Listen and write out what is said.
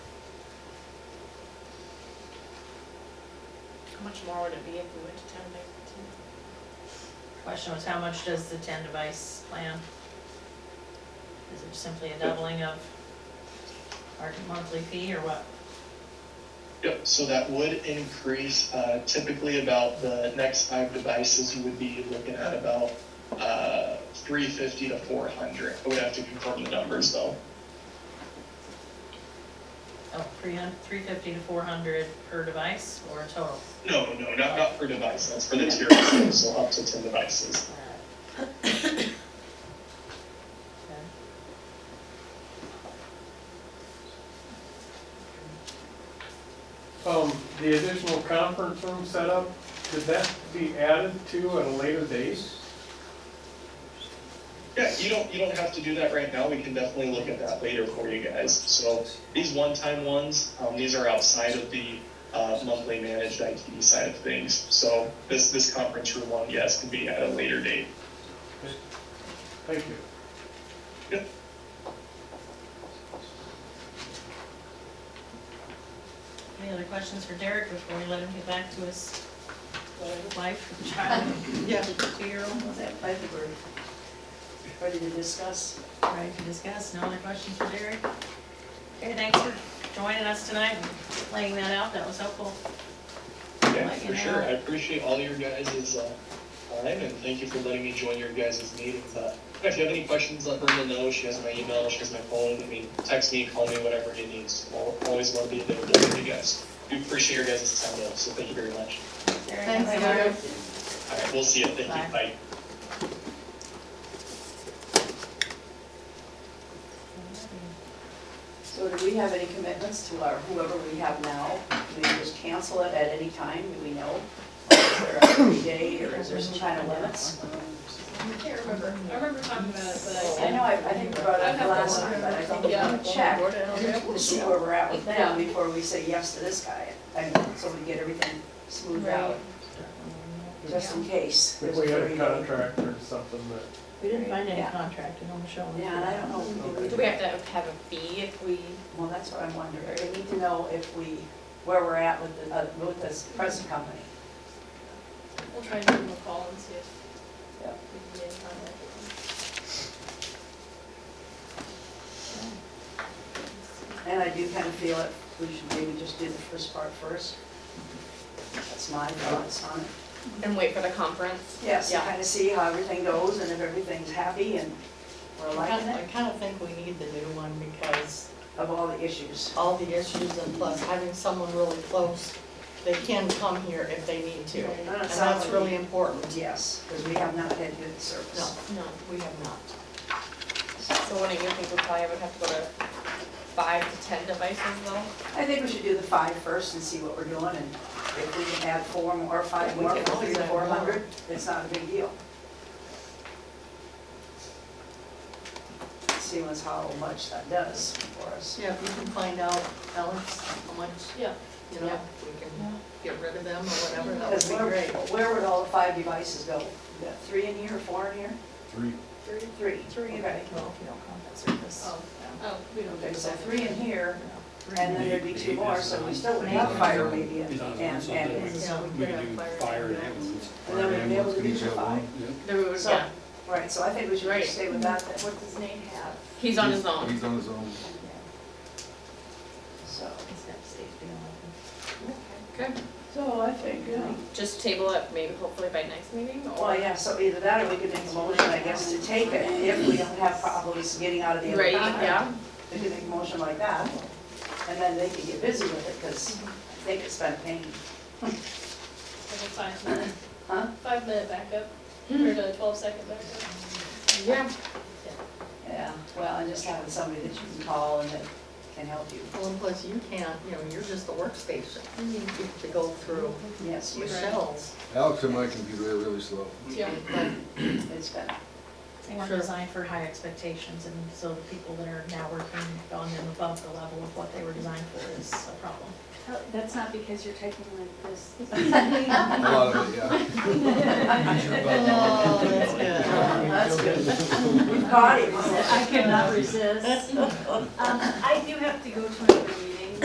How much more would it be if we went to ten by fifteen? Question was, how much does the ten device plan? Is it simply a doubling of our monthly fee or what? Yep, so that would increase uh, typically about the next five devices, you would be looking at about uh, 350 to 400. I would have to confirm the numbers though. Oh, three hun, three fifty to four hundred per device or total? No, no, not, not for devices, for the tier system, so up to 10 devices. Okay. Um, the additional conference room setup, could that be added to at a later date? Yeah, you don't, you don't have to do that right now, we can definitely look at that later for you guys. So these one-time ones, um, these are outside of the uh, monthly managed IT side of things. So this, this conference room one, yes, can be at a later date. Thank you. Any other questions for Derek before we let him get back to his wife, child, Yeah, two-year-old? was that five or? Ready to discuss? Ready to discuss, no other questions for Derek? Okay, thanks for joining us tonight and laying that out, that was helpful. Yeah, Let you for sure. know. I appreciate all your guys' uh, time and thank you for letting me join your guys' meetings. Uh, If you have any questions, let Brenda know. She has my email, she has my phone. I mean, text me, call me, whatever you need. So I'll Always want to be available for you guys. We appreciate your guys' time though, so thank you very much. Derek, Thanks, have a- Derek. All right, we'll see you. Thank Bye. you. Bye. So do we have any commitments to our, whoever we have now? Do we just cancel it at any time, do we know? Is there a free day, or is there some kind of limits? I can't remember. I remember talking about it, but I I know, I, I think we brought it up last time, but I thought we ought to check to see where we're at with them before we say yes to this guy. I mean, so we get everything smoothed out, just in case. If we had a Yeah, contract or something that. We didn't find any Yeah. contract, you know, Michelle. and I don't know, if we- Do we have to have a fee if we? well, that's what I'm wondering, we need to know if we, where we're at with the, uh, with this present company. We'll try and give them a call and see if we Yeah. can get in contact with them. And I do kind of feel it, we should maybe just do the first part first. That's my thoughts on it. And wait for the conference? Yes, Yeah. kind of see how everything goes and if everything's happy and we're I liking kinda- I it, kind of think we need the new one because of all the issues. all the issues and plus having someone really close, they can come here if they need to. And And that's really important. Yes, because we have not had good service. No, we have not. So wouldn't you think we probably would have to go to five to ten devices though? I think we should do the five first and see what we're doing and if we can add four more, or five We more, can three always to add four more. hundred, it's not a big deal. See what's how much that does for us. Yeah, if you can find out, Alex, how much, Yeah. you know, if we can get rid of them or whatever, that would Because be where, great. where would all the five devices go? You got three in here, four in here? Three. Three? Three. Well, Three, right. if you don't count that service. Oh. Oh, we don't. Okay, do so that. three in here, and then there'd be two Eight more, is so we on- still would is have on- fire maybe is and, on- and so that ambulance. Yeah, we We could could have do fire. fire and ambulance. ambulance. And then Fire we'd and be able to ambulance could do each the have five. one, yeah. Then we would, So- yeah. Right, so I think we should Right. just stay with that then, What does name have? He's on his own. He's on his own. so. Okay. So I think, yeah. Just table it maybe hopefully by next meeting or? Well, yeah, so either that or we could make a motion, I guess, to take it if we don't have problems getting out of the other Right, contract. yeah. We could make a motion like that, and then they could get busy with it, because they could spend pain. Like a five minute, Huh? five minute backup, or the twelve second backup? Yeah. Yeah, well, and just having somebody that you can call and that can help you. Well, and plus you can't, you know, you're just a workstation. You have to go through Yes, you- Michelle's. Alex and my computer are really slow. Mm-hmm. Yeah. it's been, They weren't designed for high expectations, and so the people that are now working on them above the level of what they were designed for is a problem. Oh, That's not because you're typing like this. A lot of it, yeah. Oh, that's good. that's good. We've caught it. I cannot resist. Um, I do have to go to another